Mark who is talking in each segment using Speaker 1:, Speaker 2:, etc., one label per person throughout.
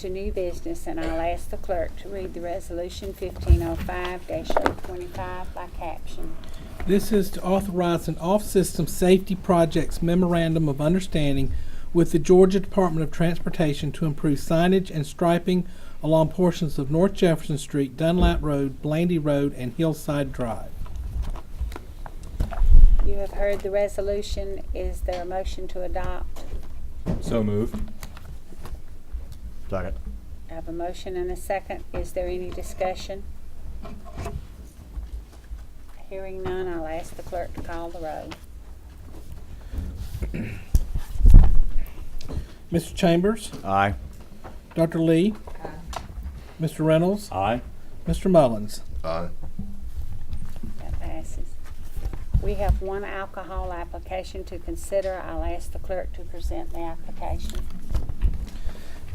Speaker 1: to new business, and I'll ask the clerk to read the resolution fifteen oh five 25 by caption.
Speaker 2: This is to authorize an off-system safety projects memorandum of understanding with the Georgia Department of Transportation to improve signage and striping along portions of North Jefferson Street, Dunlap Road, Blandy Road, and Hillside Drive.
Speaker 1: You have heard the resolution. Is there a motion to adopt?
Speaker 3: So moved.
Speaker 4: Second.
Speaker 1: I have a motion and a second. Is there any discussion? Hearing none, I'll ask the clerk to call the roll.
Speaker 2: Mr. Chambers,
Speaker 4: Aye.
Speaker 2: Dr. Lee, Mr. Reynolds,
Speaker 3: Aye.
Speaker 2: Mr. Mullins.
Speaker 5: Aye.
Speaker 1: That passes. We have one alcohol application to consider. I'll ask the clerk to present the application.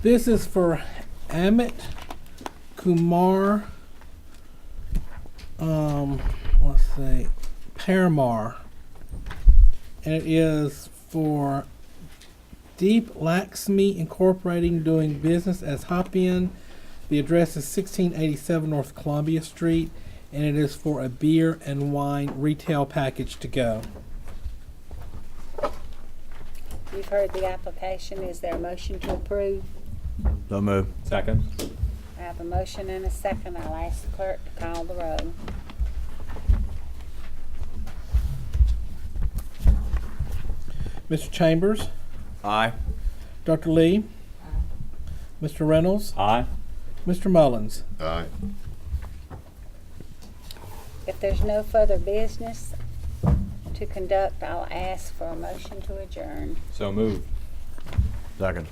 Speaker 2: This is for Amit Kumar. Um, let's see, Paramar, and it is for Deep Laxmi Incorporating doing business as Hopian. The address is 1687 North Columbia Street, and it is for a beer and wine retail package to go.
Speaker 1: You've heard the application. Is there a motion to approve?
Speaker 4: So moved.
Speaker 3: Second.
Speaker 1: I have a motion and a second. I'll ask the clerk to call the roll.
Speaker 2: Mr. Chambers,
Speaker 4: Aye.
Speaker 2: Dr. Lee, Mr. Reynolds,
Speaker 3: Aye.
Speaker 2: Mr. Mullins.
Speaker 5: Aye.
Speaker 1: If there's no further business to conduct, I'll ask for a motion to adjourn.
Speaker 3: So moved.
Speaker 4: Second.